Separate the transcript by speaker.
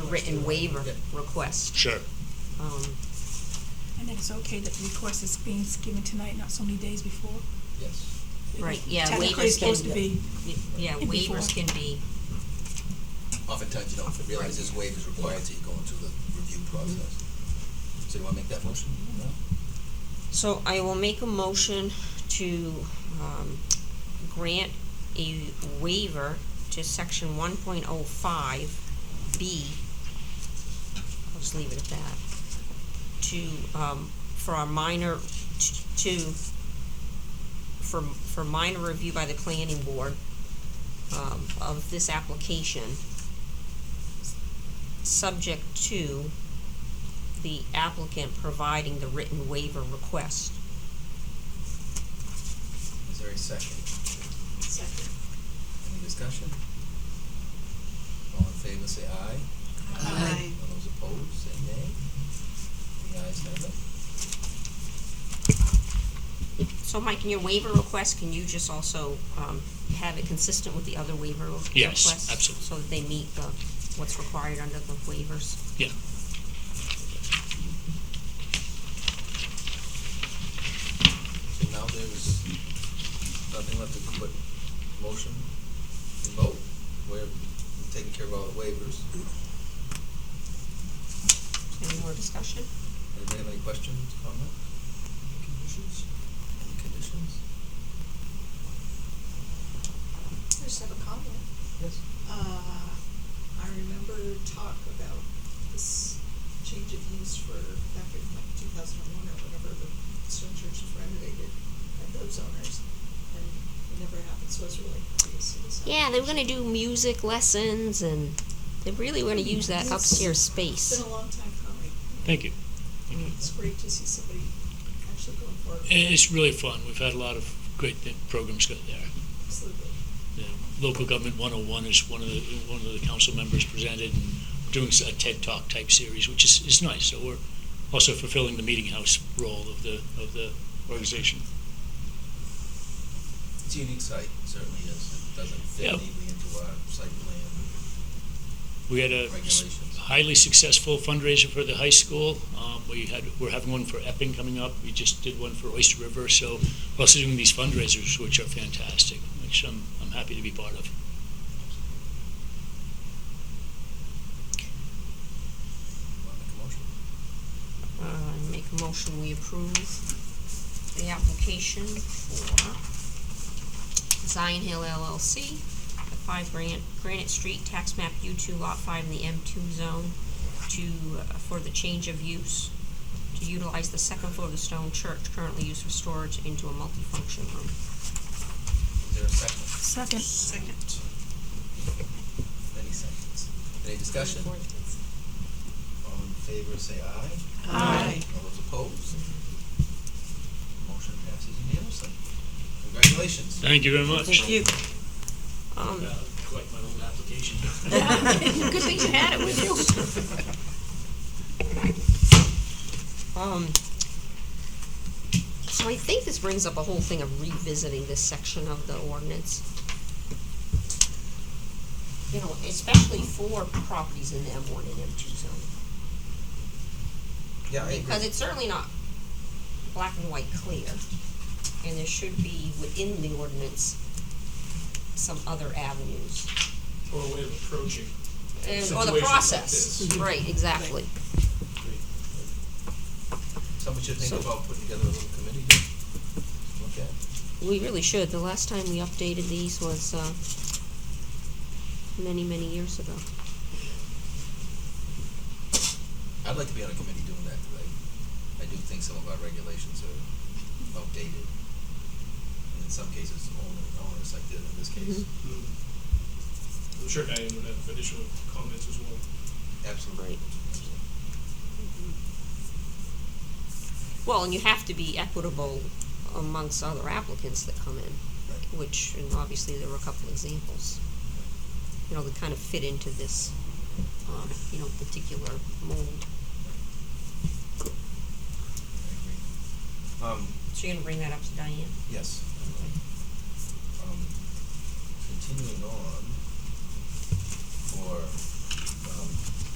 Speaker 1: written waiver
Speaker 2: Yeah.
Speaker 1: request.
Speaker 2: Sure.
Speaker 1: Um,
Speaker 3: And it's okay that the request is being given tonight, not so many days before?
Speaker 2: Yes.
Speaker 1: Right, yeah,
Speaker 3: Technically,
Speaker 1: waivers
Speaker 3: it's
Speaker 1: can-
Speaker 3: supposed to be,
Speaker 1: y- yeah,
Speaker 3: And before.
Speaker 1: waivers can be,
Speaker 2: Oftentimes you don't realize there's waivers required till you go into the review process. So you wanna make that motion? No.
Speaker 1: so I will make a motion to, um, grant a waiver to section one point oh five B. I'll just leave it at that. To, um, for our minor, t- to, for, for minor review by the planning board, um, of this application, s- subject to the applicant providing the written waiver request.
Speaker 2: Is there a second?
Speaker 4: Second.
Speaker 2: Any discussion? All in favor, say aye.
Speaker 4: Aye.
Speaker 2: All those opposed, say nay. The ayes have it.
Speaker 1: So Mike, in your waiver request, can you just also, um, have it consistent with the other waiver re- requests?
Speaker 5: Yes, absolutely.
Speaker 1: So that they meet the, what's required under the waivers?
Speaker 5: Yeah.
Speaker 2: So now there's nothing left to put motion and vote. We're taking care of all the waivers.
Speaker 1: Any more discussion?
Speaker 2: Anybody have any questions, comment? Conditions? Any conditions?
Speaker 4: I just have a comment.
Speaker 2: Yes.
Speaker 4: Uh, I remember talk about this change of use for back in like two thousand and one or whenever the Stone Church was renovated by those owners. And it never happened, so I was really curious. to see this.
Speaker 1: Yeah, they were gonna do music lessons and they really were gonna use that upstairs
Speaker 4: It's
Speaker 1: space.
Speaker 4: been a long time coming.
Speaker 5: Thank you.
Speaker 4: It's great to see somebody actually going forward.
Speaker 5: I- It's really fun. We've had a lot of great thi- programs go there.
Speaker 4: Absolutely.
Speaker 5: You know, Local Government 101 is one of the, one of the council members presented and doing s- a TED Talk type series, which is, is nice. So we're also fulfilling the meeting house role of the, of the organization.
Speaker 2: It's a unique site, certainly is. It doesn't fit
Speaker 5: Yeah.
Speaker 2: neatly into our site plan
Speaker 5: We had a s-
Speaker 2: regulations.
Speaker 5: highly successful fundraiser for the high school. Um, we had, we're having one for Epping coming up. We just did one for Oyster River. So we're also doing these fundraisers, which are fantastic, which I'm, I'm happy to be part of.
Speaker 2: Want to make a motion?
Speaker 1: Uh, make a motion, we approve the application for Zion Hill LLC, the five Granite, Granite Street, tax map U two, lot five in the M two zone, to, uh, for the change of use, to utilize the second floor of the stone church currently used for storage into a multifunction room.
Speaker 2: Is there a second?
Speaker 3: second,
Speaker 4: Second.
Speaker 2: Any seconds? Any discussion? All in favor, say aye.
Speaker 4: Aye.
Speaker 2: All those opposed? Motion passes unanimously. Congratulations.
Speaker 5: Thank you very much.
Speaker 1: you. Um,
Speaker 5: Quite my own application.
Speaker 3: good thing you had it with you.
Speaker 1: Um, so I think this brings up a whole thing of revisiting this section of the ordinance. You know, especially for properties in the M one and M two zone,
Speaker 2: Yeah, I
Speaker 1: because
Speaker 2: agree.
Speaker 1: it's certainly not black and white clear. And there should be within the ordinance some other avenues,
Speaker 6: or a way of approaching.
Speaker 1: and, or
Speaker 6: situations
Speaker 1: the
Speaker 6: like Mm-hmm.
Speaker 1: process,
Speaker 6: this.
Speaker 1: right, exactly.
Speaker 2: Somebody should think
Speaker 1: So-
Speaker 2: about putting together a little committee to look at.
Speaker 1: We really should, the last time we updated these was, uh, many, many years ago.
Speaker 2: I'd like to be on a committee doing that, because I, I do think some of our regulations are outdated. And in some cases, oner- onerous like this, in this case.
Speaker 6: Um, I'm sure Diane would have additional comments as well.
Speaker 2: Absolutely.
Speaker 1: Right. Well, and you have to be equitable amongst other applicants that come in,
Speaker 2: Right.
Speaker 1: which, and obviously, there were a couple examples, you know, that kind of fit into this, um, you know, particular mold.
Speaker 2: I agree. Um,
Speaker 1: So you're gonna bring that up to Diane?
Speaker 2: Yes. Um, continuing on, for um,